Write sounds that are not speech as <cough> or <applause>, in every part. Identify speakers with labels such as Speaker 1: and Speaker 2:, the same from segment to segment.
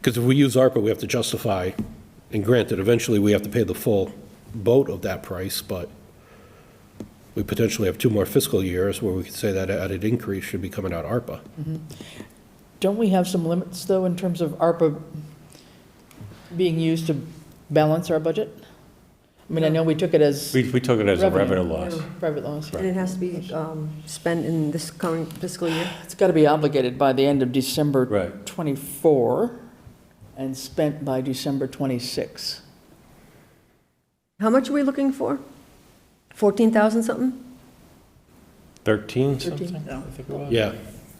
Speaker 1: Because if we use ARPA, we have to justify, and granted, eventually we have to pay the full boat of that price, but we potentially have two more fiscal years where we could say that added increase should be coming out of ARPA.
Speaker 2: Don't we have some limits, though, in terms of ARPA being used to balance our budget? I mean, I know we took it as
Speaker 3: We, we took it as a
Speaker 2: Revenue.
Speaker 3: revenue loss.
Speaker 2: private loans.
Speaker 3: Right.
Speaker 4: And it has to be um, spent in this current fiscal year?
Speaker 2: It's got to be obligated by the end of December
Speaker 3: Right.
Speaker 2: 24 and spent by December 26.
Speaker 4: How much are we looking for? 14,000 something?
Speaker 3: 13
Speaker 2: 13,
Speaker 3: something?
Speaker 2: no.
Speaker 3: I think it was.
Speaker 1: Yeah,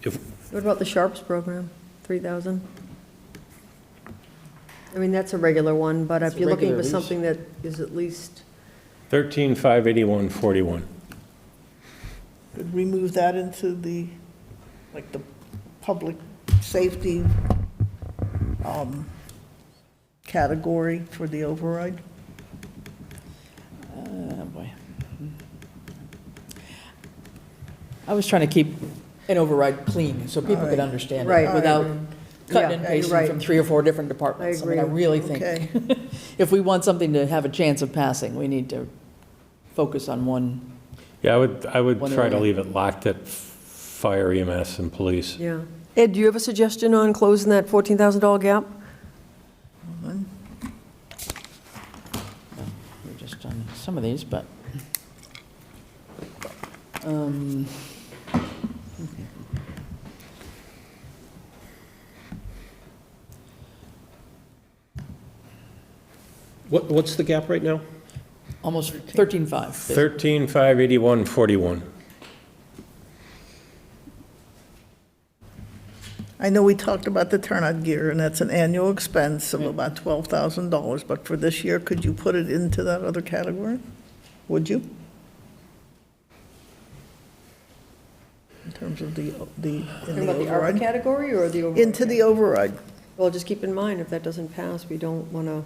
Speaker 1: if,
Speaker 4: What about the Sharps program? 3,000? I mean, that's a regular one, but
Speaker 2: It's
Speaker 4: if
Speaker 2: a
Speaker 4: you're looking
Speaker 2: regular
Speaker 4: for
Speaker 2: lease.
Speaker 4: something that is at least,
Speaker 3: 13, 581, 41.
Speaker 5: Could we move that into the, like, the public safety um, category for the override?
Speaker 2: Oh, boy. I was trying to keep an override clean so people could
Speaker 5: Right.
Speaker 2: understand
Speaker 4: Right,
Speaker 2: it
Speaker 4: right,
Speaker 2: without
Speaker 4: right.
Speaker 2: cutting
Speaker 4: Yeah,
Speaker 2: and
Speaker 4: you're
Speaker 2: pasting
Speaker 4: right.
Speaker 2: from three or four different departments.
Speaker 4: I
Speaker 2: mean, I
Speaker 4: agree.
Speaker 2: really
Speaker 5: Okay.
Speaker 2: think, if we want something to have a chance of passing, we need to focus on one.
Speaker 3: Yeah, I would, I would
Speaker 2: One
Speaker 3: try to
Speaker 2: area.
Speaker 3: leave it locked at f- fire EMS and police.
Speaker 4: yeah. Ed, do you have a suggestion on closing that $14,000 gap?
Speaker 2: We're just on some of these, but. um,
Speaker 1: what, what's the gap right now?
Speaker 2: Almost 13.5.
Speaker 3: 13, 581, 41.
Speaker 5: I know we talked about the turnout gear, and that's an annual expense of about $12,000, but for this year, could you put it into that other category? Would you? In terms of the, the, in
Speaker 4: Talking
Speaker 5: the
Speaker 4: about the ARPA
Speaker 5: override?
Speaker 4: category or the override?
Speaker 5: Into the override.
Speaker 4: Well, just keep in mind, if that doesn't pass, we don't want to,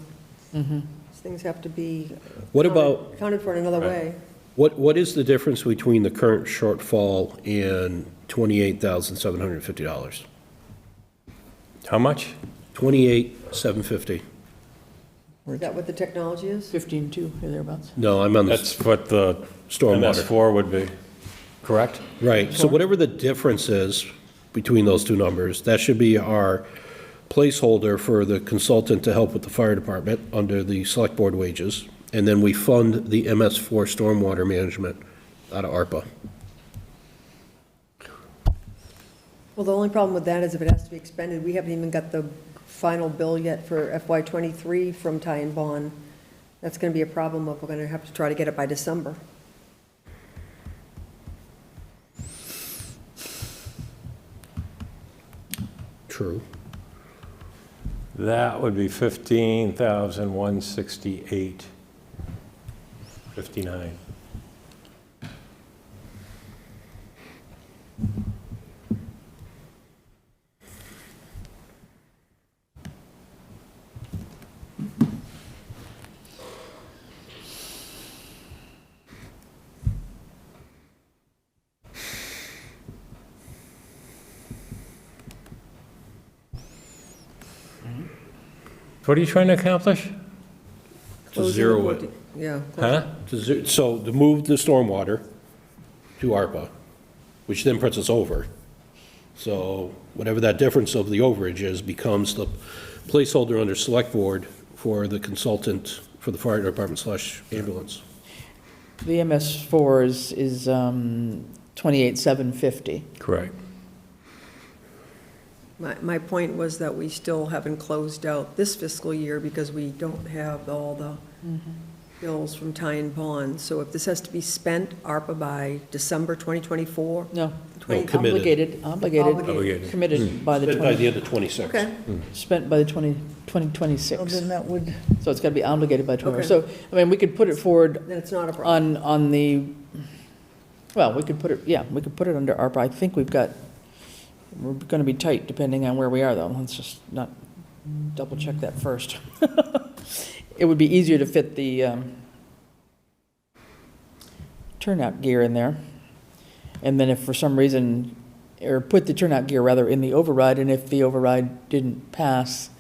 Speaker 2: Mm-hmm.
Speaker 4: things have to be.
Speaker 1: What
Speaker 4: accounted-
Speaker 1: about-
Speaker 4: Accounted for in another way.
Speaker 1: What, what is the difference between the current shortfall and twenty-eight thousand seven hundred and fifty dollars?
Speaker 3: How much?
Speaker 1: Twenty-eight, seven fifty.
Speaker 4: Is that what the technology is?
Speaker 2: 15.2, or thereabouts.
Speaker 1: No, I'm on the
Speaker 3: That's what the
Speaker 1: stormwater.
Speaker 3: MS4 would be, correct?
Speaker 1: Right, so whatever the difference is between those two numbers, that should be our placeholder for the consultant to help with the fire department under the select board wages. And then we fund the MS4 stormwater management out of ARPA.
Speaker 4: Well, the only problem with that is if it has to be expended, we haven't even got the final bill yet for FY '23 from Ty and Bond. That's going to be a problem if we're going to have to try to get it by December.
Speaker 1: True.
Speaker 3: That would be 15,168, 59. What are you trying to accomplish?
Speaker 4: Closing the
Speaker 1: zero it.
Speaker 4: 14 Yeah.
Speaker 3: Huh?
Speaker 1: To zo- So to move the stormwater to ARPA, which then puts us over. So whatever that difference of the overage is becomes the placeholder under select board for the consultant for the fire department slash ambulance.
Speaker 2: The MS4 is, is um, 28.750.
Speaker 3: Correct.
Speaker 4: My, my point was that we still haven't closed out this fiscal year because we don't have all the bills from Ty and Bond. So if this has to be spent, ARPA by December 2024,
Speaker 2: No.
Speaker 1: No, Oh, committed. Hmm.
Speaker 2: Obligated, obligated,
Speaker 4: Obligated.
Speaker 2: committed by the
Speaker 1: By
Speaker 2: 20,
Speaker 1: the end of 26.
Speaker 4: okay.
Speaker 2: spent by the 20,
Speaker 5: Well,
Speaker 2: 2026.
Speaker 5: Then that would,
Speaker 2: So it's got to be obligated by 20.
Speaker 4: Okay.
Speaker 2: So, I mean, we could put it forward
Speaker 4: Then it's not a
Speaker 2: on,
Speaker 4: problem.
Speaker 2: on the, well, we could put it, yeah, we could put it under ARPA. I think we've got, we're going to be tight depending on where we are, though. Let's just not double check that first. <laughs> It would be easier to fit the um, turnout gear in there. And then if for some reason, or put the turnout gear rather in the override, and if the override didn't pass,